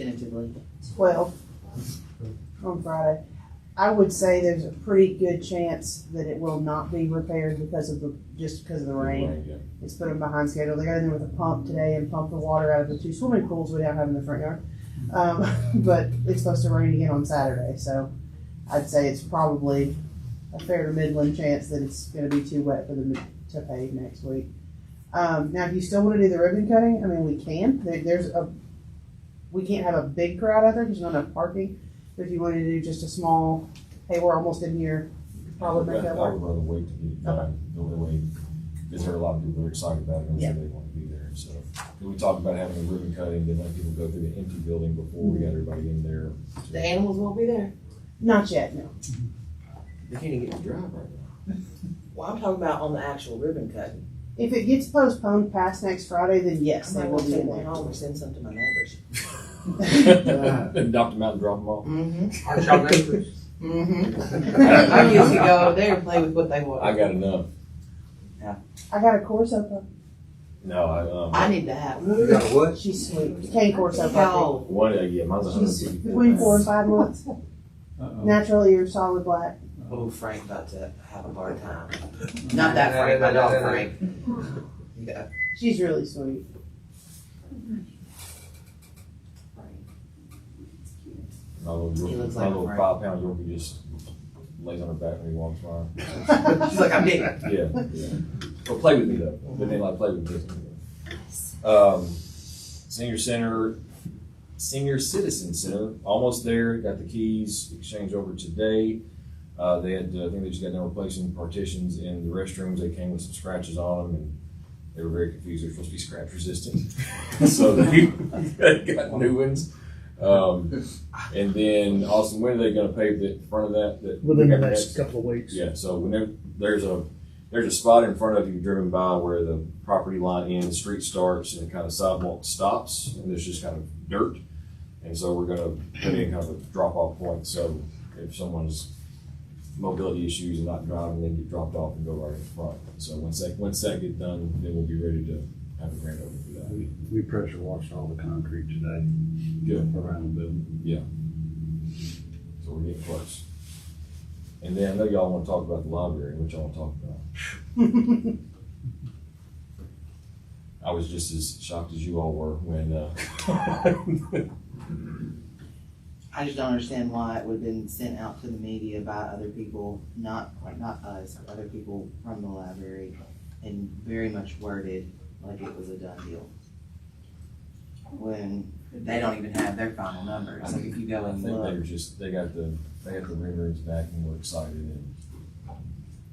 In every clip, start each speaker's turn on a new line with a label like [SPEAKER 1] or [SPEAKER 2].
[SPEAKER 1] tentatively.
[SPEAKER 2] twelve on Friday. I would say there's a pretty good chance that it will not be repaired because of the, just because of the rain. It's put them behind schedule. They got in there with a pump today and pumped the water out of the two swimming pools we now have in the front yard. Um, but it's supposed to rain again on Saturday, so I'd say it's probably a fair to middling chance that it's going to be too wet for them to pave next week. Um, now, if you still want to do the ribbon cutting, I mean, we can. There, there's a we can't have a big crowd out there because there's not enough parking. But if you wanted to do just a small, hey, we're almost in here, you could probably make that
[SPEAKER 3] I
[SPEAKER 2] work.
[SPEAKER 3] would rather wait to get it done, the only way, because there are a lot of people that are excited about it, and so they want to be there, so. And we talked about having a ribbon cutting, then let people go through the empty building before we got everybody in there.
[SPEAKER 1] The animals won't be there.
[SPEAKER 2] Not yet, no.
[SPEAKER 3] They can't even get to drive right now.
[SPEAKER 4] Well, I'm talking about on the actual ribbon cutting.
[SPEAKER 2] If it gets postponed past next Friday, then yes,
[SPEAKER 4] I
[SPEAKER 2] they
[SPEAKER 4] might
[SPEAKER 2] will
[SPEAKER 4] want to
[SPEAKER 2] be
[SPEAKER 4] take
[SPEAKER 2] in
[SPEAKER 4] one
[SPEAKER 2] there.
[SPEAKER 4] home or send some to my neighbors.
[SPEAKER 3] And Dr. Mountain drop them off.
[SPEAKER 1] Mm-hmm,
[SPEAKER 5] Aren't y'all neighbors?
[SPEAKER 1] mm-hmm. I used to go over there and play with what they
[SPEAKER 3] I
[SPEAKER 1] want.
[SPEAKER 3] got enough.
[SPEAKER 2] I got a uh, Corso
[SPEAKER 3] No, I,
[SPEAKER 1] I
[SPEAKER 3] um,
[SPEAKER 1] need to have.
[SPEAKER 5] You got a
[SPEAKER 2] pup.
[SPEAKER 5] what?
[SPEAKER 2] She's sweet. Cane Corso puppy.
[SPEAKER 1] How?
[SPEAKER 3] one, uh, yeah, mine's a hundred and
[SPEAKER 2] She's
[SPEAKER 3] fifty-four.
[SPEAKER 2] between four and five months. Natural ears, solid black.
[SPEAKER 4] Oh, Frank about to have a hard time.
[SPEAKER 1] Not that Frank, my dog Frank.
[SPEAKER 4] Yeah.
[SPEAKER 2] She's really sweet.
[SPEAKER 3] My little,
[SPEAKER 1] He looks
[SPEAKER 3] my
[SPEAKER 1] like a
[SPEAKER 3] little
[SPEAKER 1] friend.
[SPEAKER 3] five pound Yorkie just lays on her back when he walks by.
[SPEAKER 1] She's like, I'm big.
[SPEAKER 3] Yeah, yeah. Well, play with me though. But they like play with me. Um, senior center, senior citizen center, almost there. Got the keys exchanged over today. Uh, they had, uh, I think they just got done replacing partitions in the restrooms. They came with some scratches on them, and they were very confused. They're supposed to be scratch resistant, so they got new ones. Um, and then Austin, when are they going to pave the front of that? that
[SPEAKER 6] within the next couple of weeks.
[SPEAKER 3] yeah, so whenever, there's a, there's a spot in front of you driven by where the property line ends, street starts, and kind of sidewalk stops, and there's just kind of dirt. And so we're gonna put in kind of a drop-off point, so if someone's mobility issues and not driving, they get dropped off and go right in front. So once that, once that gets done, then we'll be ready to have a grand opening for that.
[SPEAKER 7] We we pressure washed all the concrete today.
[SPEAKER 3] Good.
[SPEAKER 7] Around the building.
[SPEAKER 3] So we're getting close. And then I know y'all wanna talk about the library, which y'all wanna talk about. I was just as shocked as you all were when, uh,
[SPEAKER 1] I just don't understand why it would have been sent out to the media by other people, not, like, not us, but other people from the library, and very much worded like it was a done deal. When they don't even have their final numbers, like if you go
[SPEAKER 3] I
[SPEAKER 1] and
[SPEAKER 3] think they were
[SPEAKER 1] look,
[SPEAKER 3] just, they got the, they got the rumors back and were excited and.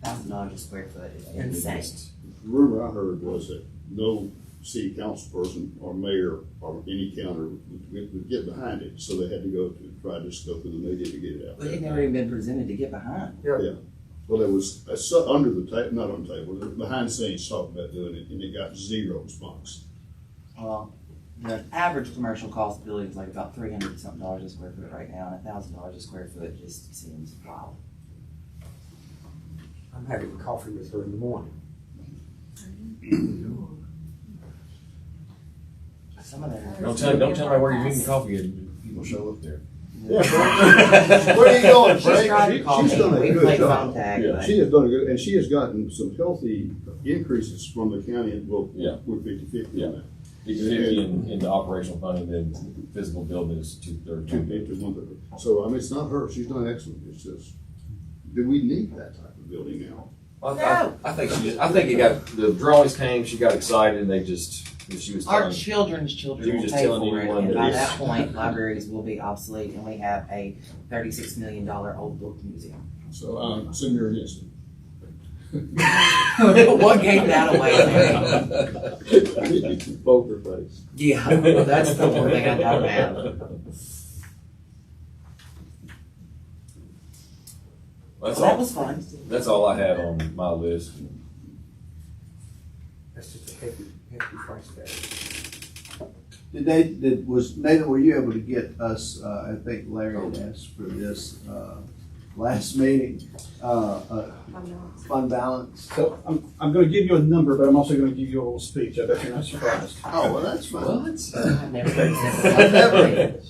[SPEAKER 1] thousand dollars a square foot is
[SPEAKER 3] and they
[SPEAKER 1] insane.
[SPEAKER 3] just-
[SPEAKER 8] rumor I heard was that no city council person or mayor or any counter would, would- would get behind it, so they had to go to, try to just go through the media to get it out
[SPEAKER 1] But it
[SPEAKER 8] there.
[SPEAKER 1] never even been presented to get behind.
[SPEAKER 8] Well, there was, a su- under the table, not on the table, there was behind the scenes talk about doing it, and it got zero response.
[SPEAKER 1] Well, the average commercial cost building is like about three hundred something dollars a square foot right now, and a thousand dollars a square foot just seems wild.
[SPEAKER 5] I'm having coffee with her in the morning.
[SPEAKER 1] Some of them.
[SPEAKER 3] Don't tell, don't tell me where you're getting coffee, and people show up there.
[SPEAKER 8] Where are you going,
[SPEAKER 1] She's tried
[SPEAKER 8] Frank?
[SPEAKER 1] to
[SPEAKER 8] She-
[SPEAKER 1] call
[SPEAKER 8] She's
[SPEAKER 1] me.
[SPEAKER 8] done a
[SPEAKER 1] We
[SPEAKER 8] good
[SPEAKER 1] played
[SPEAKER 8] job.
[SPEAKER 1] phone tag,
[SPEAKER 3] Yeah.
[SPEAKER 1] but
[SPEAKER 8] She has done a good, and she has gotten some healthy increases from the county, well,
[SPEAKER 3] Yeah.
[SPEAKER 8] we're fifty-fifty
[SPEAKER 3] Yeah.
[SPEAKER 8] now,
[SPEAKER 3] It's fifty in, in the operational funding, then physical building is two thirds.
[SPEAKER 8] two-fifty, one-thirty. So, I mean, it's not her, she's done excellent, it's just, do we need that type of building now?
[SPEAKER 3] I, I, I think she just, I think it got, the drawings came, she got excited, and they just, she was
[SPEAKER 1] our
[SPEAKER 3] telling.
[SPEAKER 1] children's
[SPEAKER 3] You
[SPEAKER 1] children
[SPEAKER 3] were
[SPEAKER 1] will
[SPEAKER 3] just
[SPEAKER 1] pay
[SPEAKER 3] telling
[SPEAKER 1] for it,
[SPEAKER 3] anyone
[SPEAKER 1] and
[SPEAKER 3] that
[SPEAKER 1] by
[SPEAKER 3] is-
[SPEAKER 1] that point, libraries will be obsolete, and we have a thirty-six million dollar old book museum.
[SPEAKER 8] So, um, so you're against it.
[SPEAKER 1] What gave that away, man?
[SPEAKER 3] Poker face.
[SPEAKER 1] Yeah, that's the one thing I got mad.
[SPEAKER 3] That's
[SPEAKER 1] That
[SPEAKER 3] all,
[SPEAKER 1] was fun.
[SPEAKER 3] that's all I had on my list.
[SPEAKER 5] That's just a hefty, hefty price tag.
[SPEAKER 7] Did they, did, was, Nathan, were you able to get us, uh, I think Larry had asked for this, uh, last meeting, uh, uh, fund balance?
[SPEAKER 6] So I'm, I'm gonna give you a number, but I'm also gonna give you a little speech. I bet you're not surprised.
[SPEAKER 8] Oh, well, that's fine.
[SPEAKER 1] I've never.
[SPEAKER 3] Never.